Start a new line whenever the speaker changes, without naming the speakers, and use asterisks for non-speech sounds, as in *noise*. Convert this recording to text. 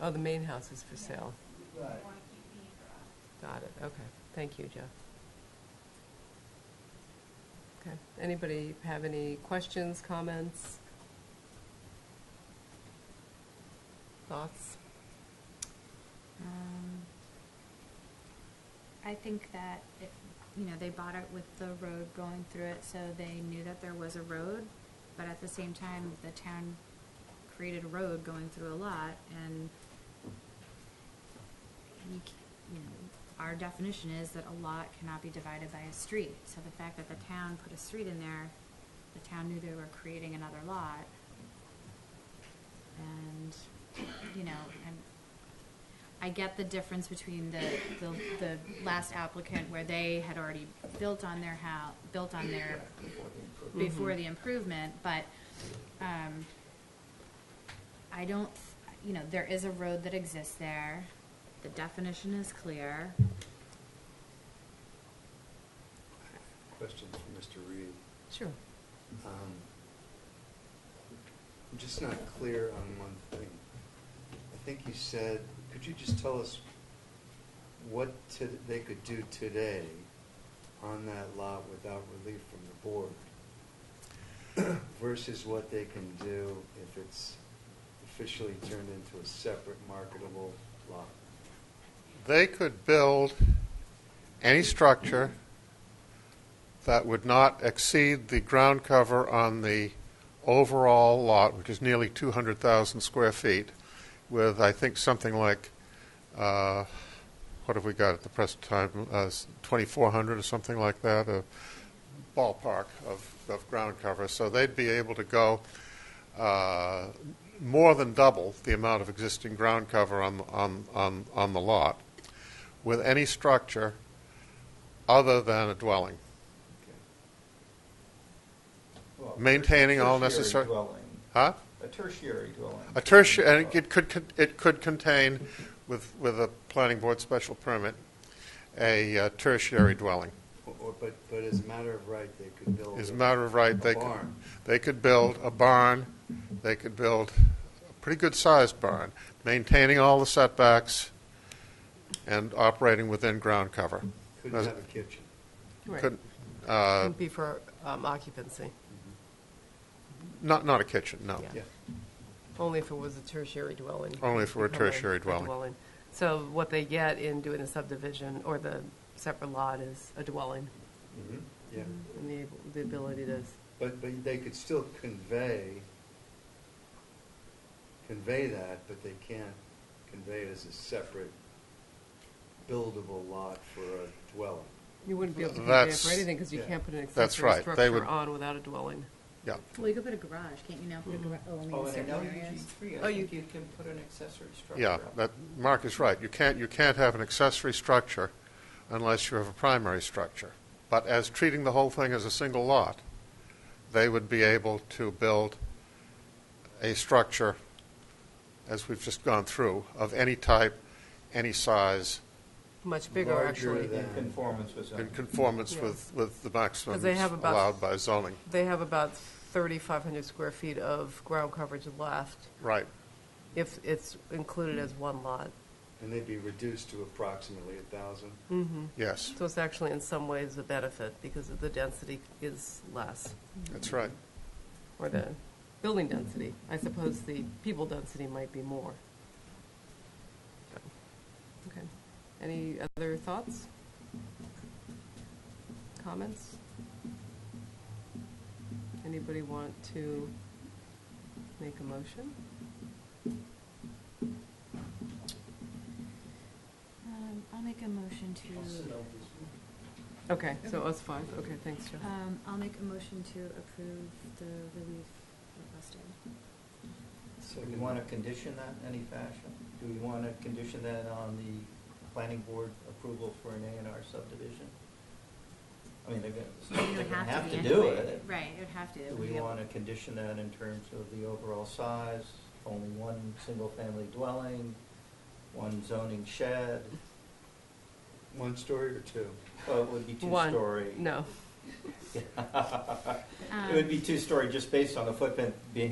Oh, the main house is for sale.
Right.
want to keep the garage.
Got it, okay. Thank you, Jeff. Okay, anybody have any questions, comments? Thoughts?
Um, I think that it, you know, they bought it with the road going through it, so they knew that there was a road, but at the same time, the town created a road going through a lot, and you, c- you know, our definition is that a lot cannot be divided by a street, so the fact that the town put a street in there, the town knew they were creating another lot, and, you know, and I get the difference between the, the, the last applicant where they had already built on their house, built on their, before the improvement, but, um, I don't, you know, there is a road that exists there, the definition is clear.
Question for Mr. Reed.
Sure.
Um, I'm just not clear on one thing. I think you said, could you just tell us what to, they could do today on that lot without relief from the board versus what they can do if it's officially turned into a separate marketable lot?
They could build any structure that would not exceed the ground cover on the overall lot, which is nearly 200,000 square feet, with, I think, something like, uh, what have we got at the present time, uh, s- 2,400 or something like that, uh, a ballpark of, of ground cover. So they'd be able to go uh, more than double the amount of existing ground cover on, on, on, on the lot with any structure other than a dwelling.
Well,
Maintaining
a
all
tertiary
necessary-
dwelling.
Huh?
A tertiary dwelling.
A tertiary, and it could, con- it could contain, with, with a planning board special permit, a uh, tertiary dwelling.
Or- Or, but, but as a matter of right, they could build.
As a matter of right, they
A
could,
barn.
they could build a barn, they could build a pretty good-sized barn, maintaining all the setbacks and operating within ground cover.
Couldn't have a kitchen.
Right.
Couldn't, uh,
Wouldn't be for um, occupancy,
Not, not a kitchen, no.
Yeah.
Yeah.
only if it was a tertiary dwelling.
Only if it were a
Become
tertiary dwelling.
So what they get in doing the subdivision or the separate lot is a dwelling
Mhm. Yeah,
and the, ab- the ability to, s-
but, but they could still convey, convey that, but they can't convey it as a separate buildable lot for a dwelling.
you wouldn't be able to convey it
That's-
for anything because you
yeah.
can't put an
That's
accessory
right. They would-
structure on without a dwelling.
Yeah.
Well, you could put a garage, can't you now put a garage,
Oh,
only in
and in
certain
LUG
areas?
three,
Oh,
I
you-
think you can put an accessory structure
Yeah,
up.
that, Mark is right. You can't, you can't have an accessory structure unless you have a primary structure. But as treating the whole thing as a single lot, they would be able to build a structure, as we've just gone through, of any type, any size,
Much bigger,
Larger
actually.
than-
In conformance with
in
zoning.
conformance
Yeah.
with, with the maximums
they have about-
allowed by zoning.
They have about 3,500 square feet of ground coverage left
Right.
if it's included as one lot.
And they'd be reduced to approximately a thousand.
Mm-hmm. Yes,
So it's actually in some ways a benefit because the density is less,
that's right.
or the building density. I suppose the people density might be more. So, Okay. Any other thoughts? Comments? Anybody want to make a motion?
Um, I'll make a motion to,
Okay, so us five, okay, thanks, Jeff.
um, I'll make a motion to approve the relief requested.
So do we want to condition that in any fashion? Do we want to condition that on the planning board approval for an A and R subdivision? I mean, they're going to, they're
It would
going to have
be
to do
anyway.
it.
Right, it would have to. It
Do
would
we
be a-
want to condition that in terms of the overall size, only one single-family dwelling, one zoning shed?
One story or two?
Well, it would be
One.
*laughs* two-story.
No.
It would be two-story just based on the footprint being